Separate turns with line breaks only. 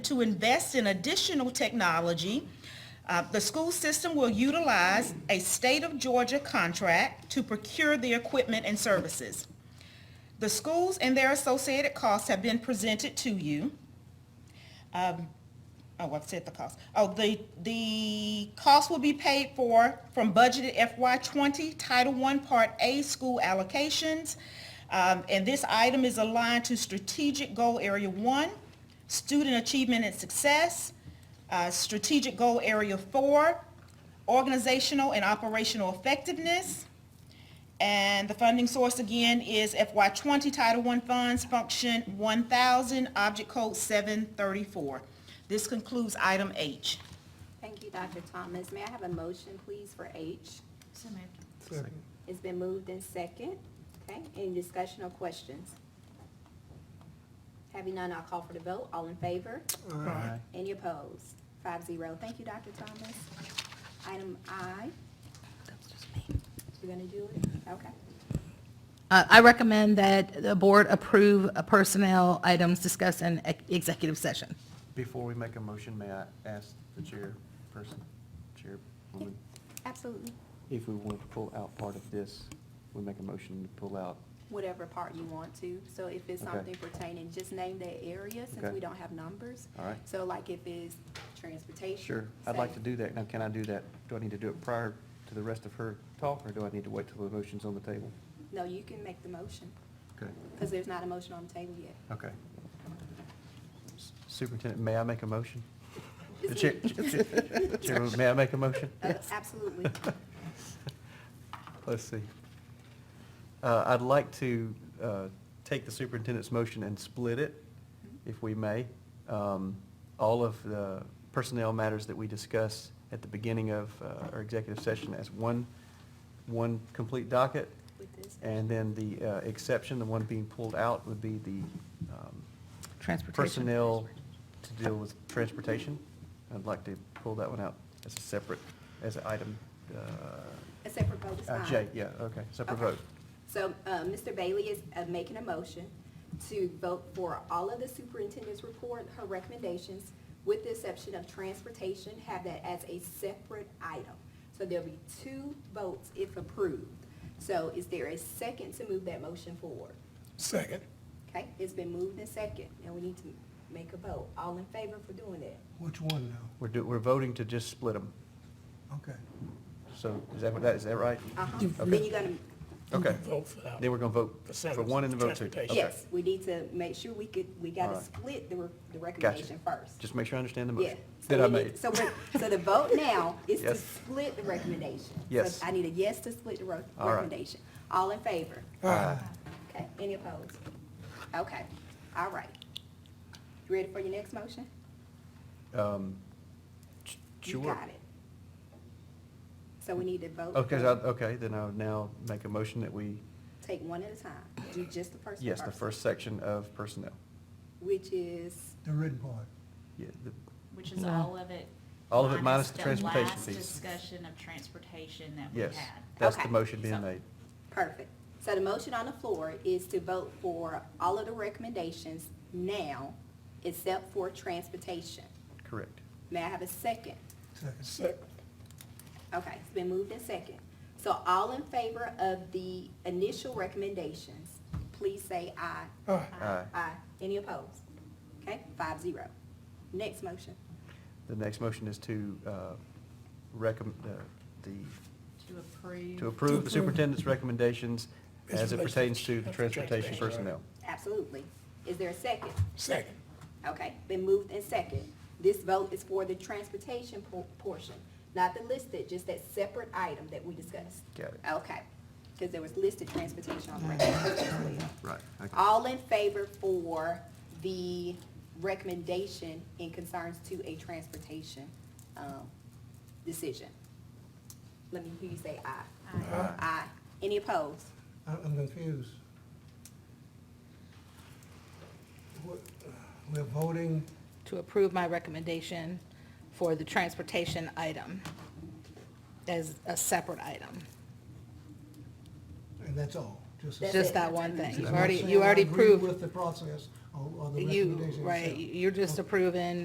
to invest in additional technology. Uh, The school system will utilize a state of Georgia contract to procure the equipment and services. The schools and their associated costs have been presented to you. Um, Oh, I've said the cost. Oh, the, the cost will be paid for from budgeted FY twenty, Title I, Part A, school allocations. Um, And this item is aligned to strategic goal area one, student achievement and success, uh, strategic goal area four, organizational and operational effectiveness, and the funding source again is FY twenty Title I funds, function one thousand, object code seven thirty-four. This concludes item H.
Thank you, Dr. Thomas. May I have a motion, please, for H? It's been moved in second. Okay, any discussion or questions? Having none, I'll call for the vote. All in favor?
Aye.
Any opposed? Five zero. Thank you, Dr. Thomas. Item I. You're gonna do it? Okay.
Uh, I recommend that the board approve uh, personnel items discussed in ex- executive session.
Before we make a motion, may I ask the chairperson, chairwoman,
Absolutely.
if we want to pull out part of this, we make a motion to pull out,
Whatever part you want to. So if it's
Okay.
something pertaining, just name that area since
Okay.
we don't have numbers.
all right?
So like if it's transportation.
Sure, I'd like
say-
to do that. Now, can I do that? Do I need to do it prior to the rest of her talk, or do I need to wait till the motion's on the table?
No, you can make the motion.
Okay,
Because there's not a motion on the table yet.
okay. S- Superintendent, may I make a motion? The
Is
chair,
it-
chair- chairwoman, may I make a motion?
Uh, Absolutely.
Let's see. Uh, I'd like to uh, take the superintendent's motion and split it, if we may. Um, All of the personnel matters that we discuss at the beginning of uh, our executive session as one, one complete docket.
With this.
And then the uh, exception, the one being pulled out, would be the um,
Transportation.
personnel to deal with transportation. I'd like to pull that one out as a separate, as an item. uh,
A separate vote is
uh,
fine.
J, yeah, okay, separate
Okay.
vote.
So uh, Mr. Bailey is uh, making a motion to vote for all of the superintendent's report, her recommendations, with the exception of transportation, have that as a separate item. So there'll be two votes if approved. So is there a second to move that motion forward?
Second.
Okay, it's been moved and second, and we need to make a vote. All in favor for doing that?
Which one now?
We're do, we're voting to just split them.
Okay.
So is that what that, is that right?
Uh-huh. Then you're gonna
Okay.
vote for that.
Then we're gonna vote
The
for
sentence,
one and then vote two.
transportation.
Okay.
Yes, we need to make sure we could, we
All
gotta
right.
split the, re- the recommendation first.
Just make sure I understand the
Yeah.
motion
So
that I
we need-
made.
So, we- so the vote now is to
Yes.
split the recommendation. So
Yes.
I need a yes to split the ro-
All right.
recommendation. All in favor?
Aye.
Okay, any opposed? Okay, all right. You ready for your next motion?
Um, sh-
You
Sure.
got it. So we need to vote.
Okay,
for-
so I- okay, then I'll now make a motion that we,
Take one at a time. Do just the first one
yes, the first section of personnel.
Which is,
The written part.
Yeah, the-
Which is
No.
all of it.
All of it minus the transportation
The
piece.
last discussion of transportation that we had.
Yes, that's the
Okay.
motion being
So-
made.
Perfect. So the motion on the floor is to vote for all of the recommendations now, except for transportation.
Correct.
May I have a second?
Second.
Second.
Okay, it's been moved and second. So all in favor of the initial recommendations, please say aye.
Aye.
Aye.
Aye. Any opposed? Okay, five zero. Next motion.
The next motion is to uh, recommend, uh, the
To approve.
to approve the superintendent's recommendations
As
as it
relates
pertains
to
to the transportation
transportation.
personnel.
Absolutely. Is there a second?
Second.
Okay, been moved and second. This vote is for the transportation por- portion, not the listed, just that separate item that we discussed.
Got it. Mm-hmm.
Okay, because there was listed transportation on the recommendation.
Right.
All in favor for the recommendation in concerns to a transportation, um, decision? Let me hear you say aye.
Aye.
Aye. Any opposed?
I- I'm confused. What- uh, We're voting,
To approve my recommendation for the transportation item as a separate item.
and that's all, just.
That's
Just
it.
that one thing.
That's
You
I'm not
already,
saying
you
I
already
agree
proved,
With the process or or the
you,
recommendation
right,
itself.
you're just approving